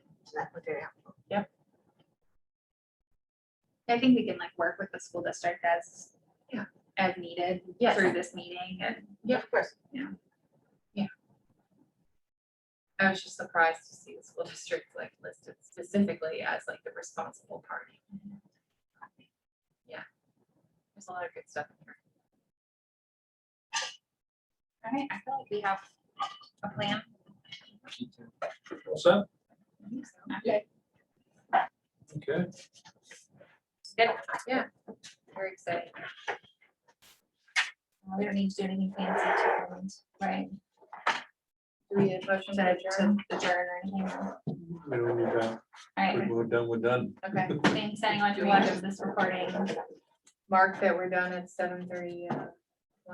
so that was very helpful. I think we can like work with the school district as. Yeah. As needed Yes. through this meeting and Yeah, of course. I was just surprised to see the school district like listed specifically as like the responsible party. Yeah. There's a lot of good stuff in here. All right, I feel like we have a plan. All set? I think so. Okay. Good, yeah, very exciting. Uh, We don't need to do anything fancy to rooms, right? Do we have motion to adjourn to adjourn or anything? All We don't need that. right, When We're done, we're done. okay, thanks anyone who watches this recording. Mark that we're done at seven thirty. uh,